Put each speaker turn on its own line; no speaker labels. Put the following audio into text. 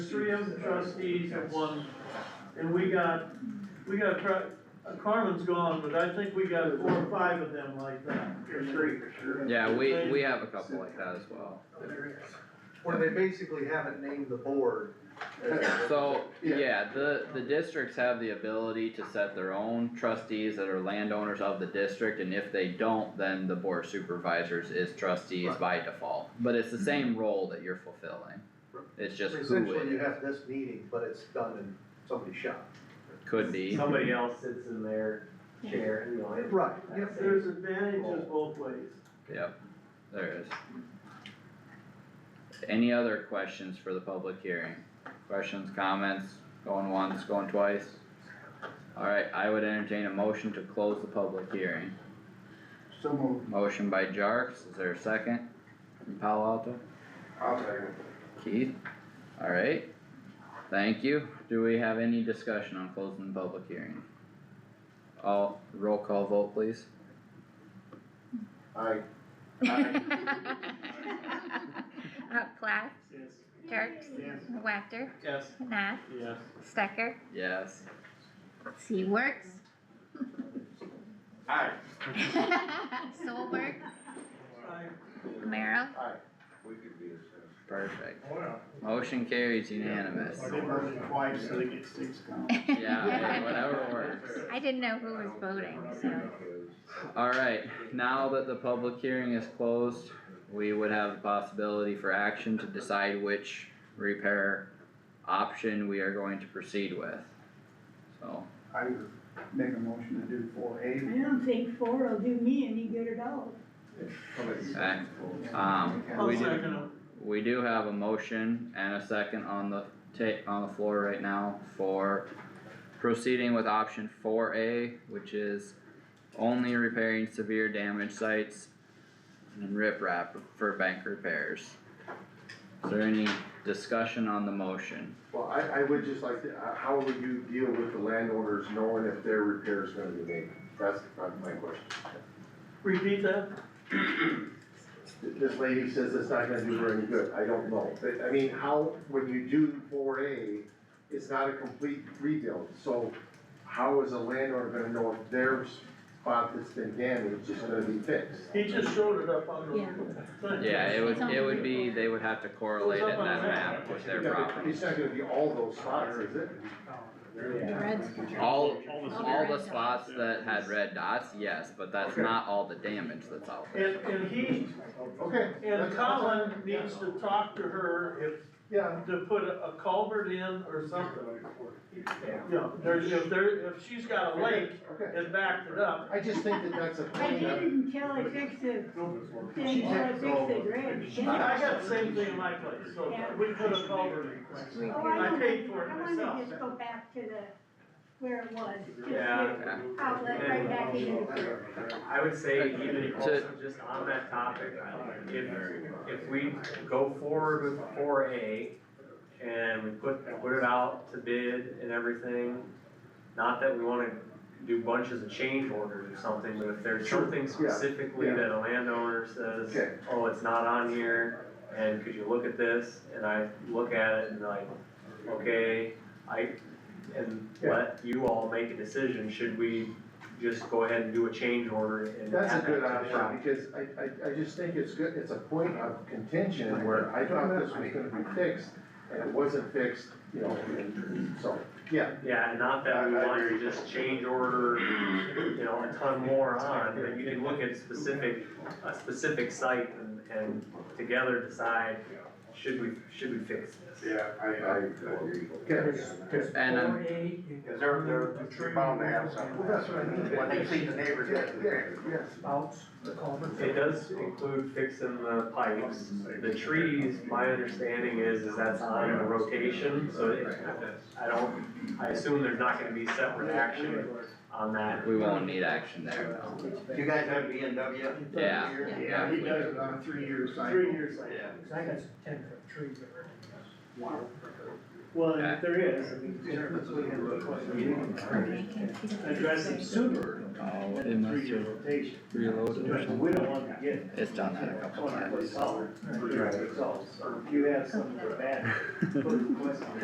three of the trustees have one, and we got, we got, tru- uh, Carmen's gone, but I think we got four or five of them like that.
There's three for sure.
Yeah, we, we have a couple like that as well.
When they basically haven't named the board.
So, yeah, the, the districts have the ability to set their own trustees that are landowners of the district, and if they don't, then the board of supervisors is trustees by default. But it's the same role that you're fulfilling, it's just who
Mm-hmm. Essentially, you
it
have this meeting, but it's done in somebody's shop.
could be.
Somebody else sits in their chair, you know, it-
Right,
Yep, there's advantages both ways.
Yep, there is. Any other questions for the public hearing? Questions, comments, going once, going twice? Alright, I would entertain a motion to close the public hearing.
So moved.
Motion by Jarks, is there a second? From Palo Alto,
I'll second.
Keith, alright, thank you. Do we have any discussion on closing the public hearing? All, roll call vote please.
Aye.
Uh, Plath,
Yes.
Jerks,
Yes.
Wactor,
Yes.
Nath,
Yes.
Stecker,
Yes.
C Works,
Aye.
Solberg, Merrill,
We could be
Perfect.
Wow.
Motion carries unanimous.
They voted twice, so they get six counts.
Yeah, hey, whatever works.
I didn't know who was voting, so.
Alright, now that the public hearing is closed, we would have the possibility for action to decide which repair option we are going to proceed with. So,
I would make a motion to do four
I
A.
don't think four will do me any good at all.
Okay. um,
I'll
we do,
second it.
we do have a motion and a second on the ta- on the floor right now for proceeding with option four A, which is only repairing severe damage sites and riprap for bank repairs. Is there any discussion on the motion?
Well, I, I would just like to, uh, how would you deal with the landowners knowing if their repair's gonna be made? That's my my question.
Repeat that?
This lady says it's not gonna do her any good, I don't know, but, I mean, how, when you do four A, it's not a complete rebuild, so how is a landowner gonna know if their spot that's been damaged is gonna be fixed?
He just showed it up on the.
Yeah.
thing.
Yeah, it would, it would be, they would have to correlate it in that map with their
Yeah, but
property.
It's not gonna be all those spots, is it?
All, all the spots that had red dots, yes, but that's not all the damage that's out there.
And, and he,
Okay.
and
that's-
Colin needs to talk to her
Yeah,
if, to put a a culvert in or something. Yeah, there's, if there, if she's got a lake
okay,
and backed it up,
I just think that that's a
I
point
did
that-
it until I fixed the, until I fixed the dredge.
I I got the same thing in my place, so we put a culvert in.
Oh, I
I
don't,
paid for it
I wanna
myself.
just go back to the, where it was, just
Yeah.
the outlet right back into the creek.
I would say even
To-
also just on that topic, if, if we go forward with four A and we put, put it out to bid and everything, not that we wanna do bunches of change orders or something, but if there's
Sure,
something specifically
yeah.
that a landowner says,
Okay.
oh, it's not on here, and could you look at this? And I look at it and like, okay, I, and
Yeah.
let you all make a decision, should we just go ahead and do a change order and
That's a
add that to
good
the
option,
project?
because I, I, I just think it's good, it's a point of contention where I thought this was gonna be fixed, and it wasn't fixed, you know, and so, yeah.
Yeah, and not that we
I- I
want to
agree.
just change order, you know, a ton more on, but you can look at specific, a specific site and, and together decide, should we, should we fix this?
Yeah,
I agree. Okay,
And uh, I'm-
Cause they're, they're, they're bound to have something.
Well, that's what I mean.
When they see the neighbors.
yeah,
have
yeah,
the-
yes.
It does include fixing the pipes, the trees, my understanding is, is that's on a rotation, so it, I don't, I assume there's not gonna be separate action on that.
We won't need action there.
You guys have B and W?
Yeah.
Yeah, he does it on a three-year cycle.
Three years later.
I got ten foot trees that are.
Well,
and if
there is,
Address them
sooner.
Oh, it must have reloaded or something.
We don't want to get
It's done that a couple times.
solid, or if you have some bad